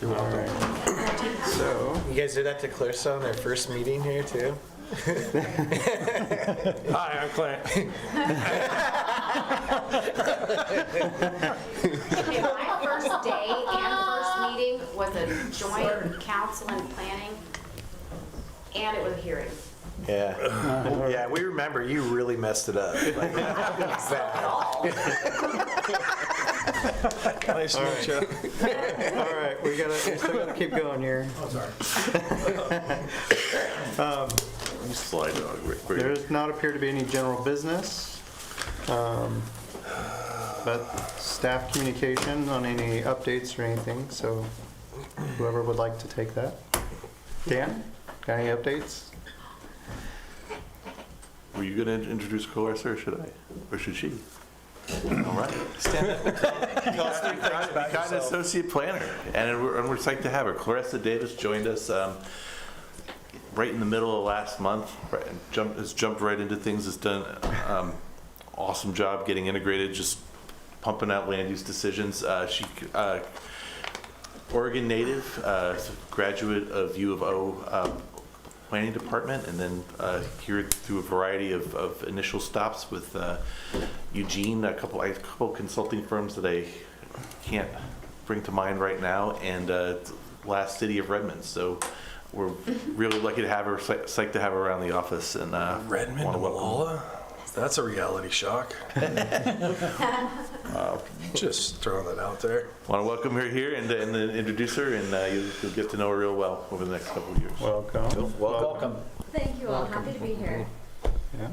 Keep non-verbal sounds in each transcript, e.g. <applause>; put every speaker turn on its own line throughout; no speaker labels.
You're welcome. So,
You guys did that to Clarissa on their first meeting here too?
hi, I'm Clint.
Okay, my first day and first meeting was a joint council and planning, and it was a hearing.
Yeah. Yeah, we remember you really messed it <laughs> up. Like,
At
bad.
all.
Nice to meet you.
All right, we gotta, we still gotta keep going here.
Slide dog, Rick,
There
Rick.
does not appear to be any general business. um, But staff communication on any updates or anything, so whoever would like to take that. Dan, got any updates?
Were you gonna introduce Clarissa, or should I? Or should she? All right. <laughs> We got an associate planner, and we're, and we're psyched to have her. Clarissa Davis joined us, um, right in the middle of last month, right, and jumped, has jumped right into things, has done, um, awesome job getting integrated, just pumping out land use decisions. Uh, she, uh, Oregon native, uh, graduate of U of O um, Planning Department, and then uh, here through a variety of, of initial stops with uh, Eugene, a couple, a couple consulting firms that I can't bring to mind right now, and uh, last city of Redmond. So we're really lucky to have her, psych- psyched to have her around the office, and uh,
Redmond
wanna
to
welcome-
Malala? That's a reality shock. Just throwing that out there.
Want to welcome her here and, uh, and then introduce her, and uh, you'll, you'll get to know her real well over the next couple of years.
Welcome.
Welcome.
Thank you all. Happy to be here.
Yeah.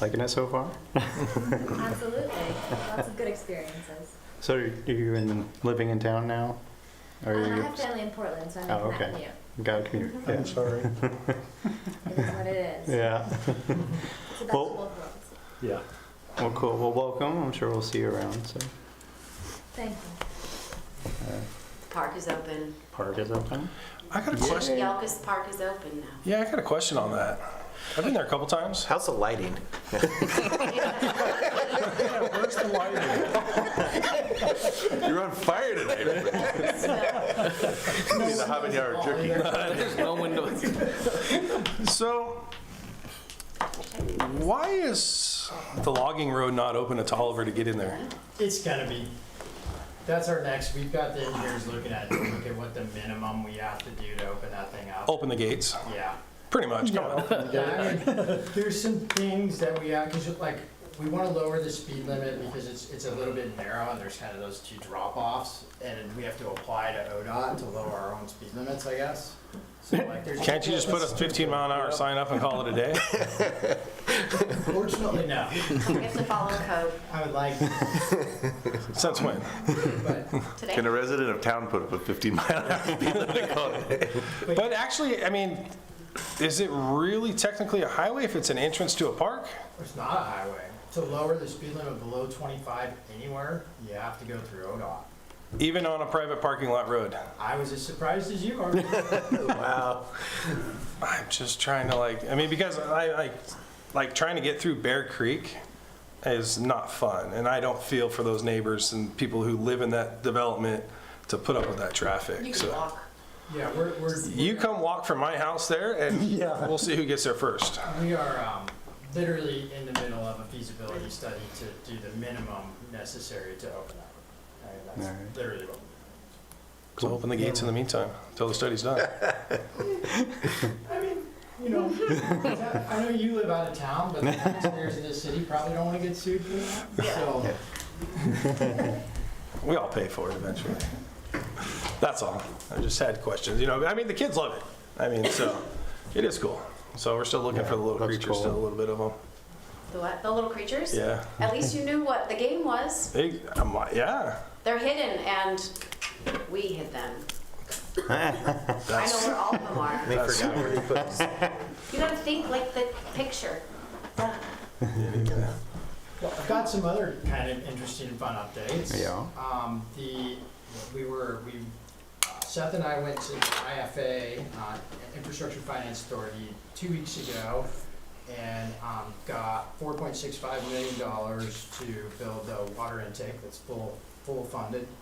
Liking it so far?
Absolutely. Lots of good experiences.
So are you in, living in town now? Are
Um, I
you,
have family in Portland, so I'm
Oh,
not
okay.
new.
got a commute? Yeah.
Sorry.
It is what it is.
Yeah.
It's the best
Well-
of both worlds.
Yeah.
Well, cool. Well, welcome. I'm sure we'll see you around, so.
Thank you.
Park is open.
Park is open?
I got a question.
Yelkus Park is open now.
Yeah, I got a question on that. I've been there a couple times.
How's the lighting?
Where's the lighting?
You're on fire tonight. <laughs> Need a habanero jerky.
So, why is the logging road not open to Tolliver to get in there?
It's gonna be, that's our next, we've got the engineers looking at, look at what the minimum we have to do to open that thing up.
Open the gates,
Yeah.
pretty much, come on.
There's some things that we have, cause like, we wanna lower the speed limit because it's, it's a little bit narrow and there's kind of those two drop-offs. And we have to apply to ODOT to lower our own speed limits, I guess. So like, there's.
Can't you just put a 15 mile an hour sign up and call it a day?
Fortunately, no.
You have to follow code
I would like, to,
Since when?
but
today.
Can a resident of town put up a 15 mile an hour speed limit call it a day?
But actually, I mean, is it really technically a highway if it's an entrance to a park?
It's not a highway. To lower the speed limit below 25 anywhere, you have to go through ODOT.
Even on a private parking lot road?
I was as surprised as you are.
Wow. I'm just trying to like, I mean, because I like, like trying to get through Bear Creek is not fun. And I don't feel for those neighbors and people who live in that development to put up with that
You
traffic.
can
So
walk.
Yeah, we're, we're,
you come walk from my house there and
<laughs>
we'll see who gets there first.
we are um, literally in the middle of a feasibility study to do the minimum necessary to open up. I mean,
Alright.
That's literally what.
So open the gates in the meantime until the study's
<laughs>
done.
I mean, you know, I know you live out of town, but the taxpayers in this city probably don't want to get sued for that. So,
We all pay for it eventually. That's all. I just had questions, you know, I mean, the kids love it. I mean, so it is cool. So we're still looking for the little
That's
creatures, still a
cool.
little bit of them.
The what? The little creatures?
Yeah.
At least you knew what the game was.
They, I'm like, yeah.
They're hidden and we hid them. I know where all of them are.
They forgot where you put it.
You gotta think like the picture.
<laughs>
well, I've got some other kind of interesting and fun updates.
Yeah.
Um, the, we were, we, uh, Seth and I went to IFA, uh, Infrastructure Finance Authority, two weeks ago, and, um, got four point six five million dollars to build a water intake that's full full funded